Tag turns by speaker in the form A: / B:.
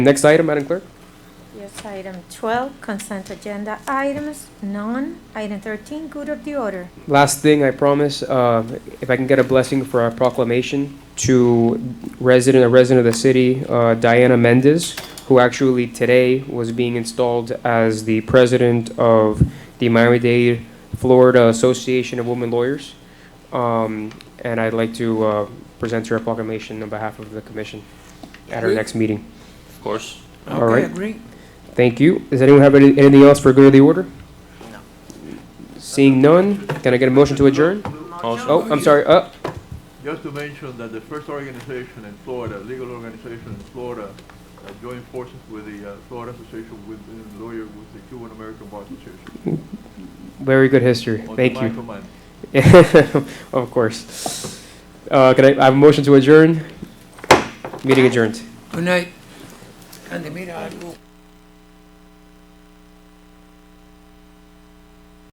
A: Next item, Madam Clerk?
B: Yes, item 12, consent agenda items, none. Item 13, good of the order.
A: Last thing, I promise, uh, if I can get a blessing for our proclamation to resident, a resident of the city, uh, Diana Mendez, who actually today was being installed as the president of the Miami-Dade Florida Association of Women Lawyers. Um, And I'd like to uh, present her a proclamation on behalf of the commission at our next meeting.
C: Of course.
A: All right.
D: Okay, agree.
A: Thank you. Does anyone have any- anything else for good of the order?
D: No.
A: Seeing none, can I get a motion to adjourn? Oh, I'm sorry, uh,
E: Just to mention that the first organization in Florida, legal organization in Florida, uh, joined forces with the uh, Florida Association with uh, Lawyer with the Cuban American Bar Association.
A: very good history,
E: under
A: thank
E: my
A: you.
E: command.
A: Of course. Uh, can I, I have a motion to adjourn? Meeting adjourned.
D: Good night. And the meeting, I will.